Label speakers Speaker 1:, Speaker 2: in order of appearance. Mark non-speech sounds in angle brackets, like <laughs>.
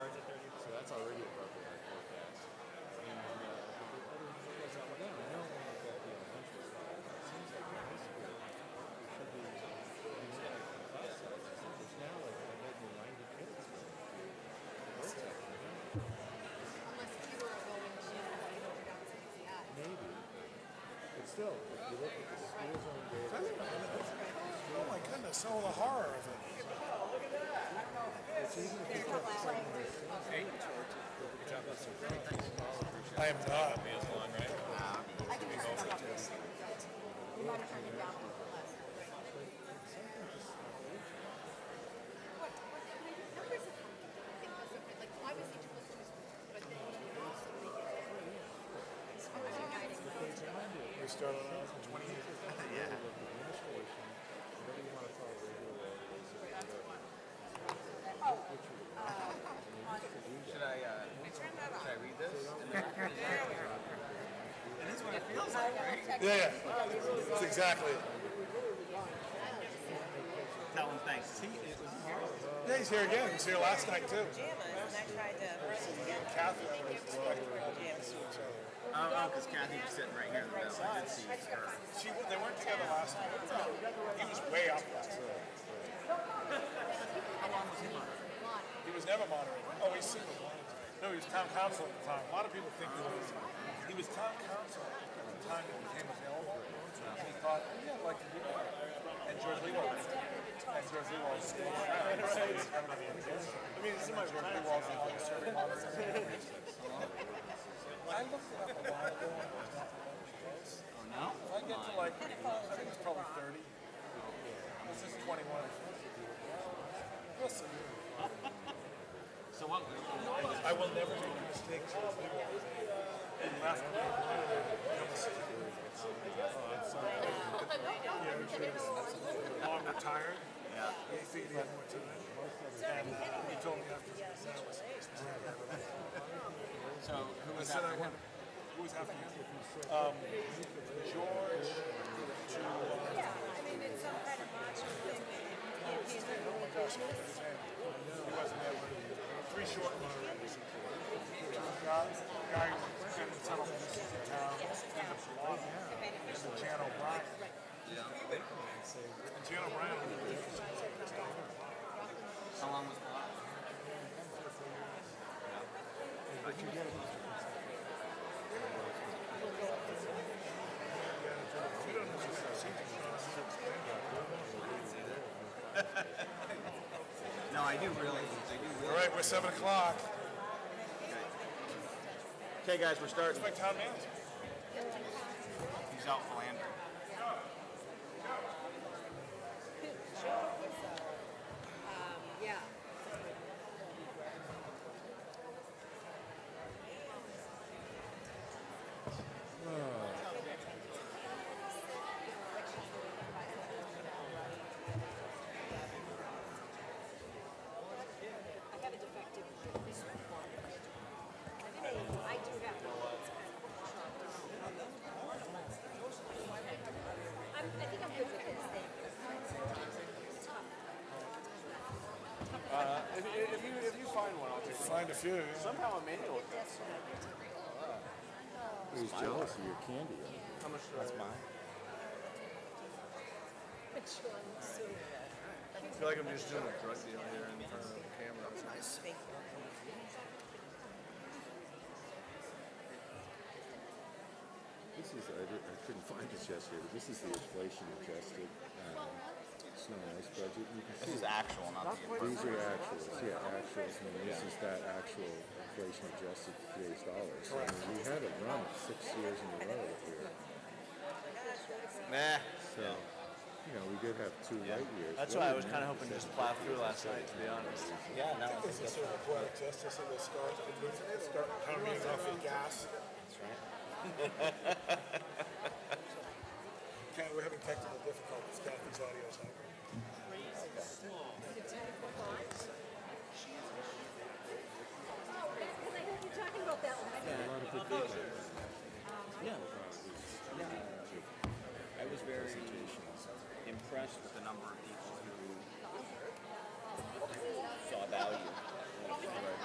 Speaker 1: still, if you look at the school zone data,
Speaker 2: Oh my goodness, oh, the horror of it.
Speaker 1: it's even if you took secondary schools,
Speaker 2: I am not.
Speaker 3: I can just come up with something. We might have turned it down a little less. What, what, I mean, numbers of, I think was something, like, why was each plus two, but then you also make it. I'm guiding them.
Speaker 2: We started out in 20 years.
Speaker 1: with administration, whatever you want to call it, regular or
Speaker 3: Oh,
Speaker 4: Should I, uh, should I read this?
Speaker 2: Yeah, yeah. That's exactly it.
Speaker 4: Tell him thanks. He, it was
Speaker 2: Yeah, he's here again. He was here last night, too.
Speaker 5: pajamas, and I tried to.
Speaker 2: Catherine, I respect her. Each other.
Speaker 4: Oh, oh, because Kathy was sitting right here in the middle. I did see her.
Speaker 2: She, they weren't together last night. He was way up last night. He was never moderating. Oh, he's super moderating. No, he was town council at the time. A lot of people think he was. He was town council at the time that he became available. And he thought, "Oh, yeah, I'd like to do that. And George Lewald. And George Lewald. I mean, this is my George Lewald's longest serving moderator. I looked it up a while ago. and it's not that close.
Speaker 4: Oh, no?
Speaker 2: If I get to like, I think it's probably 30. This is 21. Listen,
Speaker 4: So what,
Speaker 2: I will never make a mistake. I'm retired. Yeah. He said he had more time. And uh, he told me after this, I was,
Speaker 4: so who
Speaker 2: I
Speaker 4: was
Speaker 2: said
Speaker 4: after
Speaker 2: I won.
Speaker 4: him?
Speaker 2: Who was after him? Um, George to, uh,
Speaker 5: Yeah, I mean, it's some kind of macho thing that you can't handle the business.
Speaker 2: He wasn't there when he- Three short moderators. Guy, guy who's been in several businesses in town, and the blog, and Jan O'Brien. And Jan O'Brien,
Speaker 4: How long was the last? No, I do really, I do
Speaker 2: all
Speaker 4: really.
Speaker 2: right, we're seven o'clock.
Speaker 4: Okay, guys, we're starting.
Speaker 2: My town manager.
Speaker 4: He's out philandering.
Speaker 5: Yeah.
Speaker 3: I have a defective one. This one. I do have one that's kind of chopped off. I'm, I think I'm good with this thing. It's tough.
Speaker 6: If, if you if you find one, I'll take it.
Speaker 2: Find a few.
Speaker 6: Somehow Emmanuel.
Speaker 1: He was jealous of your candy. I mean,
Speaker 6: How much? That's mine.
Speaker 4: I feel like I'm just doing a drug deal here in front of the camera.
Speaker 1: This is, I didn't, I couldn't find this yesterday, but this is the inflation adjusted, um, snow and ice budget. You can
Speaker 4: This
Speaker 1: see
Speaker 4: is actual, not the.
Speaker 1: These are actuals, yeah, actuals, and this is that actual inflation adjusted to today's dollars. I mean, we had a run of six years in a row here,
Speaker 4: Nah.
Speaker 1: so, you know, we did have two light years.
Speaker 6: That's why I was kind of hoping to just plow through last night, to be honest.
Speaker 4: Yeah, no.
Speaker 2: This is sort of poetic justice in the start, start coming off the gas. <laughs> Okay, we're having technical difficulties, Kathy's audio's out.
Speaker 3: Is it ten o'clock? oh,